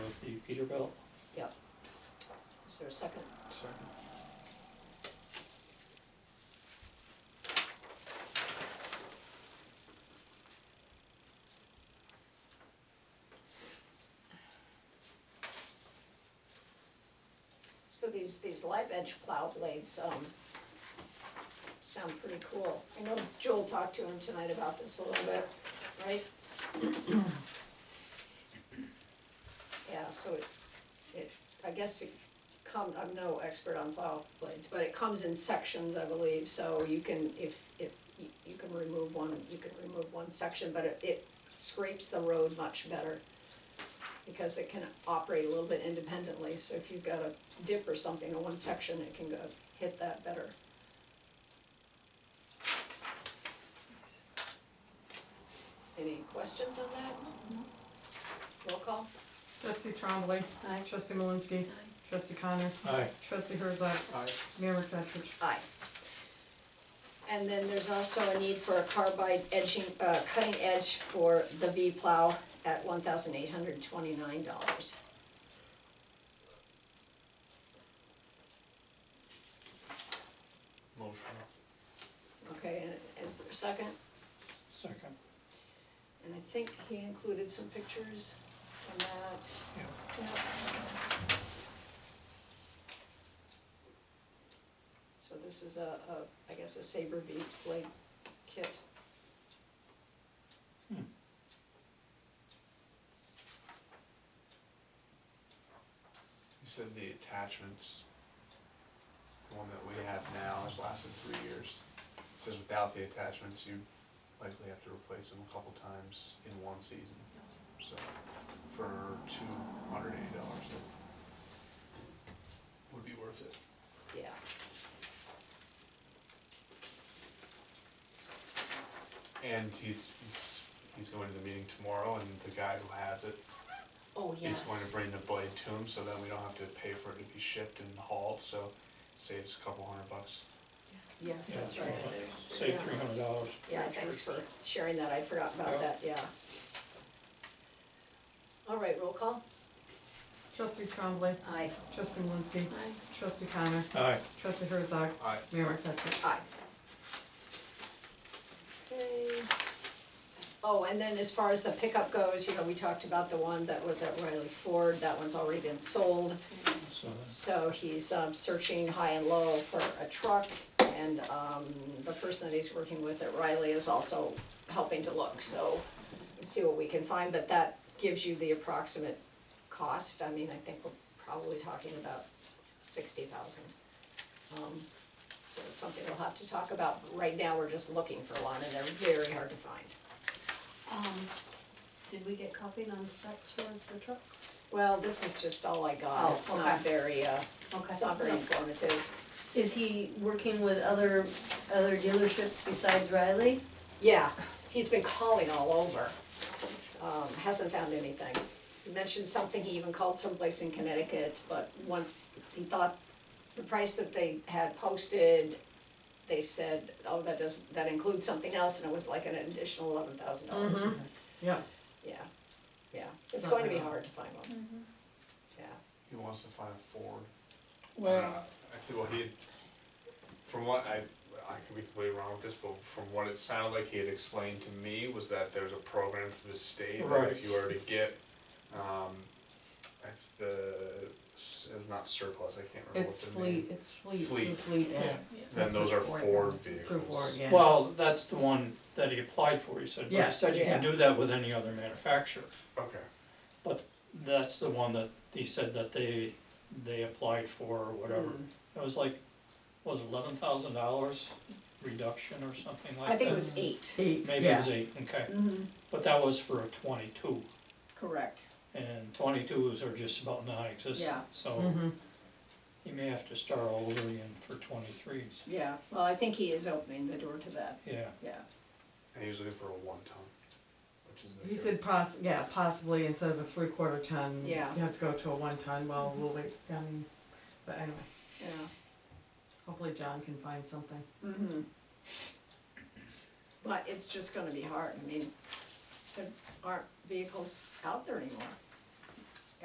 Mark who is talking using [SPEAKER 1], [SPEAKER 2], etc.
[SPEAKER 1] Peterbilt.
[SPEAKER 2] Is there a second? So these, these live edge plow blades, um, sound pretty cool. I know Joel talked to him tonight about this a little bit, right? Yeah, so it, it, I guess it come, I'm no expert on plow blades, but it comes in sections, I believe, so you can, if, if, you, you can remove one, you can remove one section, but it, it scrapes the road much better because it can operate a little bit independently, so if you've got a dip or something in one section, it can go hit that better. Any questions on that? Roll call?
[SPEAKER 3] Trustee Trombley.
[SPEAKER 2] Aye.
[SPEAKER 3] Trustee Malinsky. Trustee Connor.
[SPEAKER 1] Aye.
[SPEAKER 3] Trustee Herzog.
[SPEAKER 1] Aye.
[SPEAKER 3] Mayor McFetrich.
[SPEAKER 2] Aye. And then there's also a need for a carbide edging, uh, cutting edge for the V plow at one thousand eight hundred twenty-nine dollars.
[SPEAKER 4] Motion.
[SPEAKER 2] Okay, and is there a second?
[SPEAKER 1] Second.
[SPEAKER 2] And I think he included some pictures from that.
[SPEAKER 1] Yeah.
[SPEAKER 2] So this is a, a, I guess a saber beat blade kit.
[SPEAKER 1] Hmm.
[SPEAKER 4] You said the attachments, the one that we have now has lasted three years. It Says without the attachments, you likely have to replace them a couple times in one season. So for two hundred eighty dollars, it would be worth it.
[SPEAKER 2] Yeah.
[SPEAKER 4] And he's, he's, he's going to the meeting tomorrow and the guy who has it
[SPEAKER 2] Oh,
[SPEAKER 4] He's going to bring the blade to him, so then we don't have to pay for it to be shipped and hauled, so saves a couple hundred bucks.
[SPEAKER 2] Yes, that's
[SPEAKER 1] Yeah,
[SPEAKER 2] right.
[SPEAKER 1] Save
[SPEAKER 2] Yeah.
[SPEAKER 1] three hundred dollars.
[SPEAKER 2] Yeah, thanks for sharing that, I forgot about that, yeah. All right, roll call?
[SPEAKER 3] Trustee Trombley.
[SPEAKER 2] Aye.
[SPEAKER 3] Trustee Malinsky.
[SPEAKER 2] Aye.
[SPEAKER 3] Trustee Connor.
[SPEAKER 1] Aye.
[SPEAKER 3] Trustee Herzog.
[SPEAKER 4] Aye.
[SPEAKER 3] Mayor McFetrich.
[SPEAKER 2] Aye. Okay. Oh, and then as far as the pickup goes, you know, we talked about the one that was at Riley Ford, that one's already been sold.
[SPEAKER 1] So,
[SPEAKER 2] So he's um, searching high and low for a truck, and um, the person that he's working with at Riley is also helping to look, so we'll see what we can find, but that gives you the approximate cost, I mean, I think we're probably talking about sixty thousand. Um, So it's something we'll have to talk about, but right now, we're just looking for one, and they're very hard to find.
[SPEAKER 5] Um, did we get copied on the specs for the truck?
[SPEAKER 2] Well, this is just all I got,
[SPEAKER 5] Oh,
[SPEAKER 2] it's not
[SPEAKER 5] okay.
[SPEAKER 2] very, uh,
[SPEAKER 5] Okay.
[SPEAKER 2] it's not very informative.
[SPEAKER 5] Is he working with other, other dealerships besides Riley?
[SPEAKER 2] Yeah, he's been calling all over, um, hasn't found anything. He mentioned something, he even called someplace in Connecticut, but once he thought the price that they had posted, they said, oh, that does, that includes something else, and it was like an additional eleven thousand dollars.
[SPEAKER 3] Mhm. Yeah.
[SPEAKER 2] Mm-hmm. Yeah, yeah, it's
[SPEAKER 3] Not
[SPEAKER 2] going to be
[SPEAKER 3] bad.
[SPEAKER 2] hard to find one. Yeah,
[SPEAKER 4] He wants to find a Ford.
[SPEAKER 1] well,
[SPEAKER 4] I think, Uh, well, he, had- from what I, I could be completely wrong with this, but from what it sounded like he had explained to me was that there's a program for the state, that
[SPEAKER 1] Right.
[SPEAKER 4] if you were to get, um, if the, s- not surplus, I can't remember what
[SPEAKER 3] It's
[SPEAKER 4] the name.
[SPEAKER 3] fleet, it's fleet,
[SPEAKER 4] Fleet.
[SPEAKER 3] fleet
[SPEAKER 1] Yeah.
[SPEAKER 3] ed.
[SPEAKER 4] Then those are Ford vehicles.
[SPEAKER 3] Through Ford, yeah.
[SPEAKER 1] well, that's the one that he applied for, he said, but
[SPEAKER 3] Yeah.
[SPEAKER 1] he said you can do that with any other manufacturer.
[SPEAKER 4] Okay,
[SPEAKER 1] That's the one that he said that they, they applied for or whatever.
[SPEAKER 2] Mm.
[SPEAKER 3] Mm.
[SPEAKER 1] It was like, what was eleven thousand dollars reduction or something like that?
[SPEAKER 2] I think it was eight.
[SPEAKER 3] Eight,
[SPEAKER 1] Maybe it
[SPEAKER 3] yeah.
[SPEAKER 1] was eight, okay,
[SPEAKER 2] Mm-hmm.
[SPEAKER 1] but that was for a twenty-two,
[SPEAKER 2] Correct,
[SPEAKER 1] and twenty-twos are just about non-existent,
[SPEAKER 2] Yeah.
[SPEAKER 1] so.
[SPEAKER 3] Mm-hmm.
[SPEAKER 1] You may have to start all over again for twenty-threes,
[SPEAKER 2] yeah, well, I think he is opening the door to that,
[SPEAKER 1] yeah.
[SPEAKER 2] yeah.
[SPEAKER 4] and he was looking for a one ton, which is.
[SPEAKER 3] He said poss, yeah, possibly instead of a three-quarter ton.
[SPEAKER 2] Yeah.
[SPEAKER 3] You have to go to a one-ton, well, we'll wait, um, but anyway,
[SPEAKER 2] Yeah.
[SPEAKER 3] hopefully John can find something.
[SPEAKER 2] Mm-hmm. But it's just gonna be hard, I mean, there aren't vehicles out there anymore.